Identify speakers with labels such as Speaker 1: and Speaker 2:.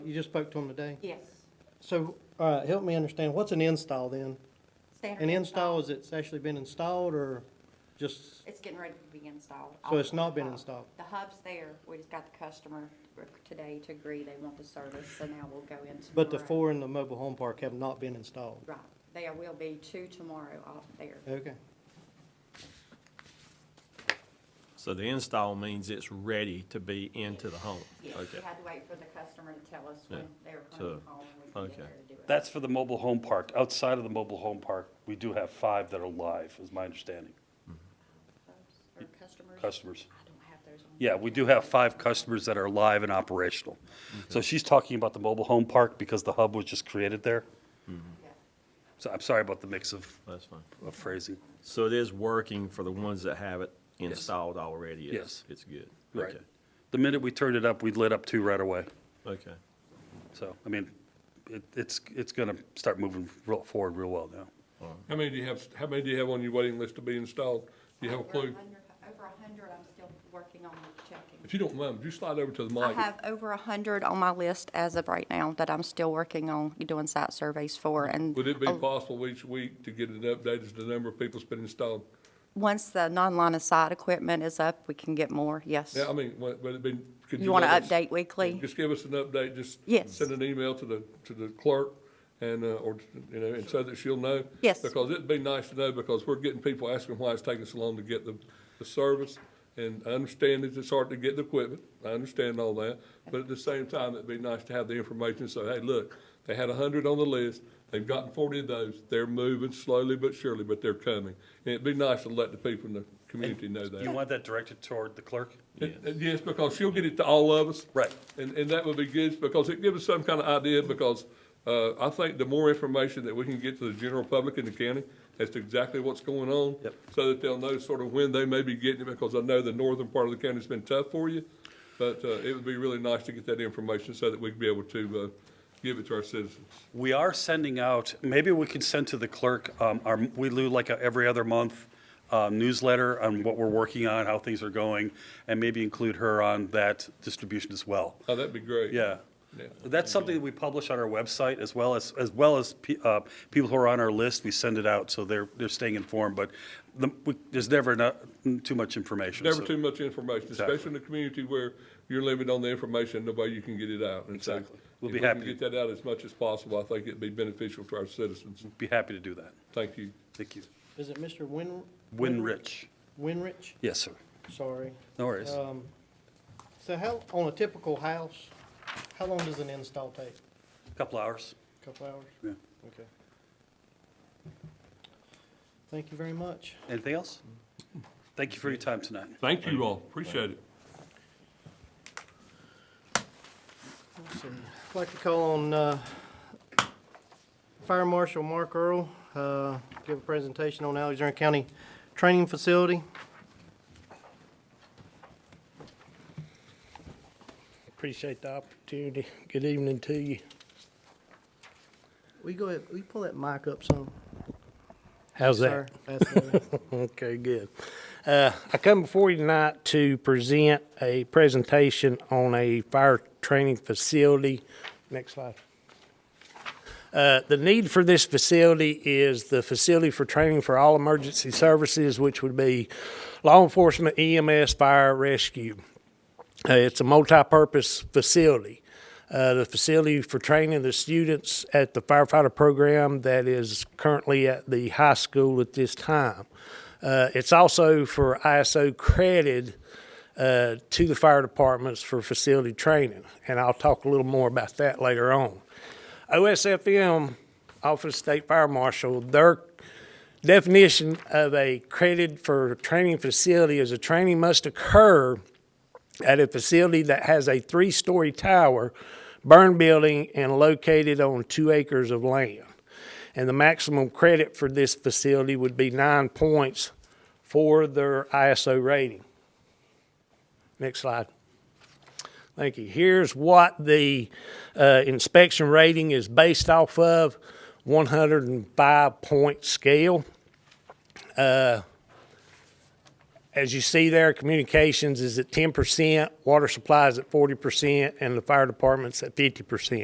Speaker 1: You just spoke to them today?
Speaker 2: Yes.
Speaker 1: So, all right, help me understand, what's an install then?
Speaker 2: Standard
Speaker 1: An install is it's actually been installed or just,
Speaker 2: It's getting ready to be installed.
Speaker 1: So it's not been
Speaker 2: Uh,
Speaker 1: installed?
Speaker 2: The hub's there. We just got the customer today to agree they want the service, so now we'll go in tomorrow.
Speaker 1: but the four in the mobile home park have not been installed?
Speaker 2: Right. There will be two tomorrow out there.
Speaker 1: Okay.
Speaker 3: So the install means it's ready to be into the home?
Speaker 2: Yes,
Speaker 3: Okay.
Speaker 2: we had to wait for the customer to tell us
Speaker 3: Yeah.
Speaker 2: when they're coming
Speaker 3: So,
Speaker 2: home and we can get
Speaker 3: okay.
Speaker 2: there to do it.
Speaker 4: That's for the mobile home park. Outside of the mobile home park, we do have five that are live, is my understanding,
Speaker 2: Folks, Or customers?
Speaker 4: customers.
Speaker 2: I don't have those on.
Speaker 4: Yeah, we do have five customers that are live and operational. So she's talking about the mobile home park because the hub was just created there.
Speaker 2: Yeah.
Speaker 4: So I'm sorry about the mix of
Speaker 3: That's fine.
Speaker 4: of phrasing.
Speaker 3: So it is working for the ones that have it installed already? It's-
Speaker 4: Yes.
Speaker 3: It's good?
Speaker 4: Right.
Speaker 3: Okay.
Speaker 4: The minute we turned it up, we lit up two right away.
Speaker 3: Okay.
Speaker 4: So, I mean, it, it's, it's gonna start moving real, forward real well now.
Speaker 5: How many do you have, how many do you have on your waiting list to be installed? Do you have a
Speaker 2: Over
Speaker 5: clue?
Speaker 2: 100 Over a hundred, I'm still working on checking.
Speaker 5: If you don't mind, would you slide over to the
Speaker 2: I
Speaker 5: mic?
Speaker 2: have over a hundred on my list as of right now that I'm still working on doing site surveys for, and uh,
Speaker 5: Would it be
Speaker 2: a-
Speaker 5: possible each week to get an update as to the number of people's been installed?
Speaker 2: once the non-line of sight equipment is up, we can get more, yes.
Speaker 5: Yeah, I mean, would would it be? could
Speaker 2: You want to
Speaker 5: let us-
Speaker 2: update weekly?
Speaker 5: Just give us an update, just.
Speaker 2: Yes.
Speaker 5: Send an email to the, to the clerk and, uh, or, you know, and so that she'll know.
Speaker 2: Yes.
Speaker 5: Because it'd be nice to know, because we're getting people asking why it's taking so long to get the, the service. And I understand that it's hard to get the equipment, I understand all that, but at the same time, it'd be nice to have the information, so, hey, look, they had a hundred on the list, they've gotten forty of those, they're moving slowly but surely, but they're coming. And it'd be nice to let the people in the community know that.
Speaker 4: You want that directed toward the clerk?
Speaker 5: It- it- Yes, because she'll get it to all of us.
Speaker 4: Right.
Speaker 5: And, and that would be good, because it gives us some kind of idea, because, uh, I think the more information that we can get to the general public in the county as to exactly what's going on.
Speaker 4: Yep.
Speaker 5: So that they'll know sort of when they may be getting it, because I know the northern part of the county's been tough for you. But, uh, it would be really nice to get that information so that we can be able to, uh, give it to our citizens.
Speaker 4: We are sending out, maybe we can send to the clerk, um, our, we do like a every other month uh, newsletter on what we're working on, how things are going, and maybe include her on that distribution as well.
Speaker 5: Oh, that'd be great.
Speaker 4: Yeah.
Speaker 5: Yeah.
Speaker 4: That's something that we publish on our website as well as, as well as pe- uh, people who are on our list, we send it out, so they're, they're staying informed, but the, we- there's never enough- too much information.
Speaker 5: Never
Speaker 4: so-
Speaker 5: too much information,
Speaker 4: Exactly.
Speaker 5: especially in the community where you're limited on the information, the way you can get it out. And so
Speaker 4: Exactly. We'll
Speaker 5: if
Speaker 4: be
Speaker 5: we can
Speaker 4: happy to-
Speaker 5: Get that out as much as possible. I think it'd be beneficial to our citizens.
Speaker 4: Be happy to do that.
Speaker 5: Thank you.
Speaker 4: Thank you.
Speaker 1: Is it Mr. Win?
Speaker 4: Winrich.
Speaker 1: Winrich?
Speaker 4: Yes, sir.
Speaker 1: Sorry.
Speaker 4: No worries.
Speaker 5: Uh,
Speaker 1: Um, so how, on a typical house, how long does an install take?
Speaker 4: Couple hours.
Speaker 1: Couple hours?
Speaker 4: Yeah.
Speaker 1: Okay. Thank you very much.
Speaker 4: Anything else? Thank you for your time tonight.
Speaker 5: Thank you all. Appreciate it.
Speaker 1: Let's see. I'd like to call on uh, Fire Marshal Mark Earl, uh, give a presentation on Alexander County Training Facility.
Speaker 6: Appreciate the opportunity. Good evening to you.
Speaker 1: We go ahead, we pull that mic up some?
Speaker 6: How's
Speaker 1: sir? That's better.
Speaker 6: Okay, good. Uh, I come before you tonight to present a presentation on a fire training facility. Next slide. Uh, the need for this facility is the facility for training for all emergency services, which would be law enforcement, EMS, fire, rescue. Uh, it's a multi-purpose facility. Uh, the facility for training the students at the firefighter program that is currently at the high school at this time. Uh, it's also for ISO credit uh, to the fire departments for facility training, and I'll talk a little more about that later on. OSFM, Office of State Fire Marshal, their definition of a credit for training facility is a training must occur at a facility that has a three-story tower, burn building, and located on two acres of land. And the maximum credit for this facility would be nine points for their ISO rating. Next slide. Thank you. Here's what the uh, inspection rating is based off of, 105-point scale. As you see there, communications is at ten percent, water supply is at forty percent, and the fire department's at fifty percent.